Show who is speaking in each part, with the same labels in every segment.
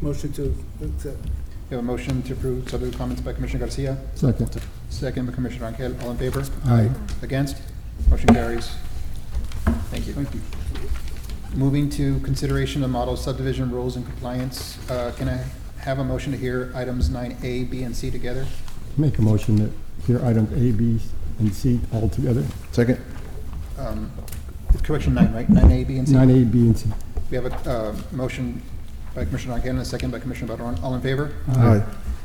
Speaker 1: Motion to accept.
Speaker 2: We have a motion to approve, subject to comments by Commissioner Garcia,
Speaker 3: Second.
Speaker 2: second by Commissioner Rangel. All in favor?
Speaker 3: Aye.
Speaker 2: Against? Motion carries. Thank you.
Speaker 1: Thank you.
Speaker 2: Moving to consideration of model subdivision rules and compliance, uh, can I have a motion to hear items nine A, B, and C together?
Speaker 3: Make a motion that hear items A, B, and C all together.
Speaker 4: Second.
Speaker 2: Um, Correction nine, right? Nine A, B, and C?
Speaker 3: Nine A, B, and C.
Speaker 2: We have a uh, motion by Commissioner Rangel and a second by Commissioner Barone. All in favor?
Speaker 4: Aye.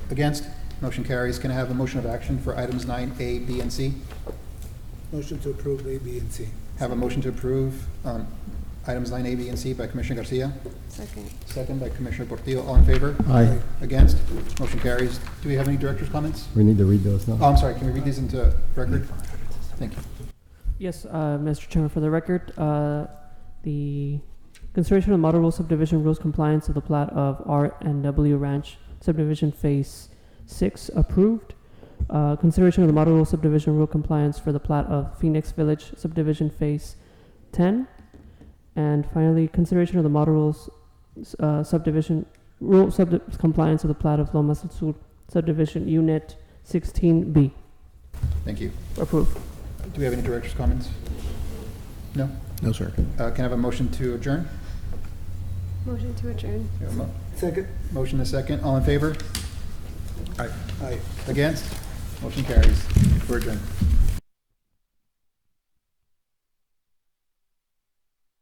Speaker 2: Against? Motion carries. Can I have a motion of action for items nine A, B, and C?
Speaker 1: Motion to approve A, B, and C.
Speaker 2: Have a motion to approve um, items nine A, B, and C by Commissioner Garcia,
Speaker 5: Second.
Speaker 2: second by Commissioner Portillo. All in favor?
Speaker 3: Aye.
Speaker 2: Against? Motion carries. Do we have any director's comments?
Speaker 3: We need to read those
Speaker 2: Oh,
Speaker 3: now.
Speaker 2: I'm sorry, can we read these into record? Thank you.
Speaker 6: Yes, uh, Mr. Chairman, for the record, uh, the consideration of model rule subdivision rules compliance of the plat of R and W Ranch subdivision phase six approved. Uh, Consideration of the model rule subdivision rule compliance for the plat of Phoenix Village subdivision phase ten. And finally, consideration of the model rules uh, subdivision, rule subdi- compliance of the plat of Lomas del Sur subdivision unit sixteen B
Speaker 2: Thank you.
Speaker 6: approved.
Speaker 2: Do we have any director's comments? No?
Speaker 4: No, sir.
Speaker 2: Uh, Can I have a motion to adjourn?
Speaker 5: Motion to adjourn.
Speaker 2: We have a mo-
Speaker 1: Second?
Speaker 2: Motion and a second. All in favor?
Speaker 1: Aye.
Speaker 2: Against? Motion carries. We're adjourned.